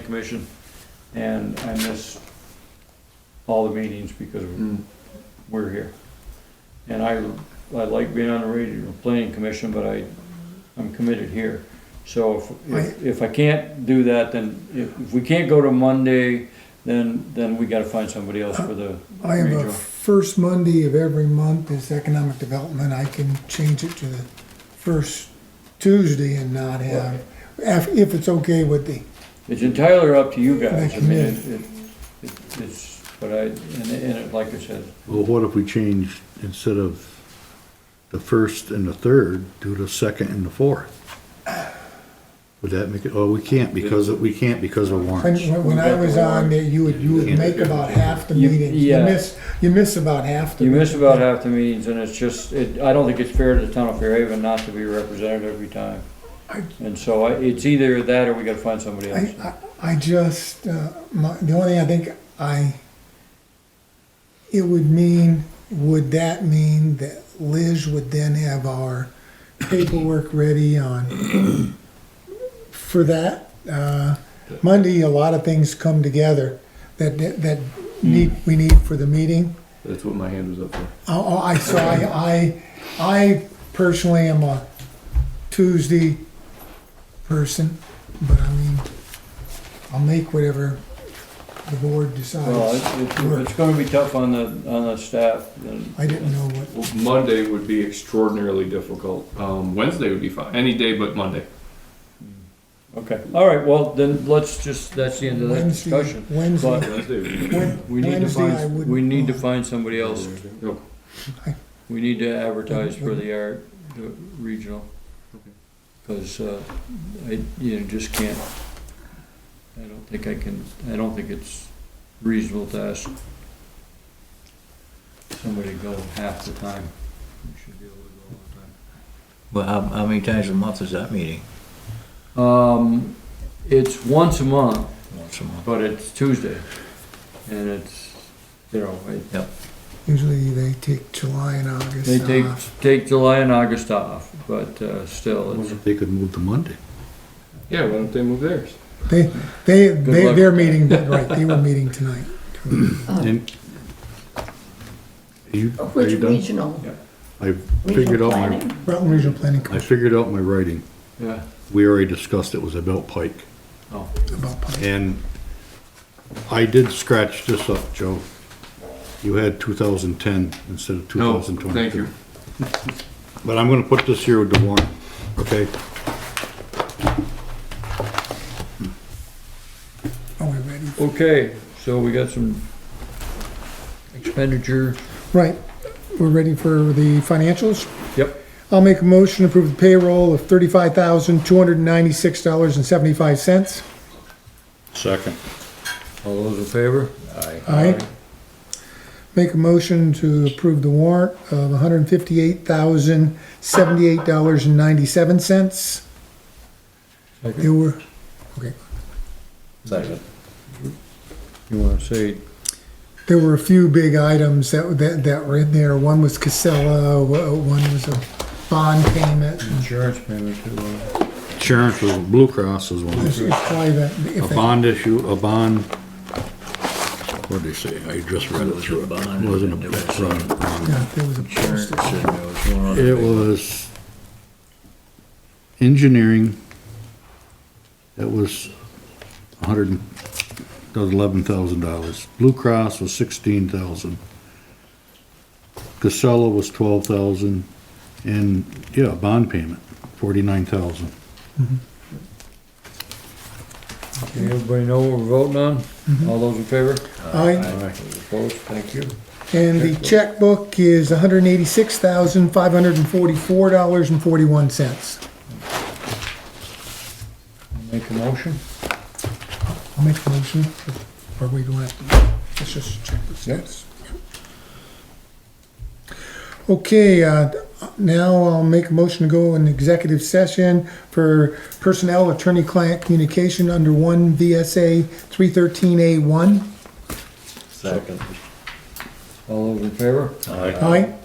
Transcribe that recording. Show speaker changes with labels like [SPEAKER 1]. [SPEAKER 1] planning commission, and I miss all the meetings because we're here. And I, I like being on the radio, planning commission, but I, I'm committed here. So if- if, if I can't do that, then if, if we can't go to Monday, then, then we gotta find somebody else for the
[SPEAKER 2] I have
[SPEAKER 1] regional.
[SPEAKER 2] a first Monday of every month is economic development. I can change it to the first Tuesday and not have, if, if it's okay with the,
[SPEAKER 1] It's entirely up to you guys, I mean, it,
[SPEAKER 2] Thank
[SPEAKER 1] it, it- it's, but I, and, and it- like I said,
[SPEAKER 3] Well, what if we change, instead of the first and the third, do the second and the fourth? Would that make it, oh, we can't because, of- we can't because of
[SPEAKER 2] when,
[SPEAKER 3] warrants.
[SPEAKER 2] when I was on there, you would, you would make about half the
[SPEAKER 1] You-
[SPEAKER 2] meetings. You
[SPEAKER 1] yeah.
[SPEAKER 2] miss, you miss about half the.
[SPEAKER 1] you miss about half the meetings, and it's just, it, I don't think it's fair to the town of Fairhaven not to be represented every time.
[SPEAKER 2] I-
[SPEAKER 1] And so I, it's either that or we gotta find somebody
[SPEAKER 2] I,
[SPEAKER 1] else.
[SPEAKER 2] I I just, uh, my, the only thing I think I, it would mean, would that mean that Liz would then have our paperwork ready on, for that? Uh, Monday, a lot of things come together that, that need, we need for the meeting.
[SPEAKER 4] That's what my hand was up for.
[SPEAKER 2] Oh, oh, I, so I, I, I personally am a Tuesday person, but I mean, I'll make whatever the board
[SPEAKER 1] Well,
[SPEAKER 2] decides.
[SPEAKER 1] it's- it's, it's gonna be tough on the, on the staff, and
[SPEAKER 2] I didn't know what,
[SPEAKER 4] Well, Monday would be extraordinarily difficult. Um, Wednesday would be fine, any day but Monday.
[SPEAKER 1] okay, all right, well, then let's just, that's the end of that
[SPEAKER 2] Wednesday,
[SPEAKER 1] discussion.
[SPEAKER 2] Wednesday,
[SPEAKER 1] But
[SPEAKER 4] Wednesday would be.
[SPEAKER 2] Wed-
[SPEAKER 1] we need to
[SPEAKER 2] Wednesday I
[SPEAKER 1] find,
[SPEAKER 2] wouldn't.
[SPEAKER 1] we need to
[SPEAKER 2] know.
[SPEAKER 1] find somebody else,
[SPEAKER 4] No,
[SPEAKER 1] we need to advertise for the art, the regional. Cause, uh, I, you know, just can't, I don't think I can, I don't think it's reasonable to ask somebody to go half the time. We should be able to go all the time.
[SPEAKER 5] Well, how, how many times a month is that meeting?
[SPEAKER 1] Um, it's once a month,
[SPEAKER 5] Once a month.
[SPEAKER 1] but it's Tuesday, and it's, you know, it-
[SPEAKER 2] Usually they take July and August Uh,
[SPEAKER 1] they take,
[SPEAKER 2] off.
[SPEAKER 1] take July and August off, but, uh, still, it's,
[SPEAKER 3] They could move to Monday.
[SPEAKER 4] Yeah, why don't they move theirs?
[SPEAKER 2] They, they, they,
[SPEAKER 1] luck.
[SPEAKER 2] they're meeting, right, they were meeting tonight.
[SPEAKER 3] And you, are
[SPEAKER 6] Oh. Which
[SPEAKER 3] you done?
[SPEAKER 6] regional?
[SPEAKER 3] I figured
[SPEAKER 6] Regional
[SPEAKER 3] out my,
[SPEAKER 6] planning?
[SPEAKER 2] Rutland Regional Planning
[SPEAKER 3] I
[SPEAKER 2] Commission
[SPEAKER 3] figured out my writing.
[SPEAKER 1] yeah,
[SPEAKER 3] We already discussed it was about Pike.
[SPEAKER 1] oh,
[SPEAKER 2] about planning.
[SPEAKER 3] And I did scratch this up, Joe. You had 2010 instead of
[SPEAKER 4] No,
[SPEAKER 3] 2022.
[SPEAKER 4] thank you.
[SPEAKER 3] But I'm gonna put this here with the warrant, okay?
[SPEAKER 2] Are we oh, ready?
[SPEAKER 1] okay, so we got some expenditure,
[SPEAKER 2] Right, we're ready for the financials?
[SPEAKER 1] yep,
[SPEAKER 2] I'll make a motion to approve the payroll of thirty-five thousand, two hundred and ninety-six dollars and seventy-five cents.
[SPEAKER 3] Second.
[SPEAKER 1] all those in favor?
[SPEAKER 2] Aye. Make a motion to approve the warrant of one hundred and fifty-eight thousand, seventy-eight dollars and ninety-seven cents.
[SPEAKER 1] Second.
[SPEAKER 2] There were, okay,
[SPEAKER 5] Second.
[SPEAKER 1] You wanna say,
[SPEAKER 2] there were a few big items that, that, that were in there. One was Casella, wa- one was a bond payment.
[SPEAKER 1] insurance payment too, uh,
[SPEAKER 3] Insurance was, Blue Cross was one.
[SPEAKER 2] It's probably that, if
[SPEAKER 3] A
[SPEAKER 2] that,
[SPEAKER 3] bond issue, a bond, what'd they say? I just read it through. It Wasn't a, it's not-
[SPEAKER 2] yeah, there was a
[SPEAKER 5] Insurance,
[SPEAKER 2] postage.
[SPEAKER 5] and there was one other
[SPEAKER 3] it
[SPEAKER 5] thing.
[SPEAKER 3] was engineering. It was a hundred, and- that was eleven thousand dollars. Blue Cross was sixteen thousand. Casella was twelve thousand, and, yeah, bond payment, forty-nine thousand.
[SPEAKER 1] everybody know what we're voting on? All those in favor?
[SPEAKER 3] Uh,
[SPEAKER 2] Aye.
[SPEAKER 1] Opposed, thank you.
[SPEAKER 2] And the checkbook is hundred and eighty-six thousand, five hundred and forty-four dollars and forty-one cents.
[SPEAKER 1] Make a motion?
[SPEAKER 2] I'll make a motion, or we don't have to, let's just check this. Yes. Okay, uh, now I'll make a motion to go in executive session for personnel attorney-client communication under one VSA three thirteen A one.
[SPEAKER 5] Second.
[SPEAKER 1] All those in favor?
[SPEAKER 2] Aye.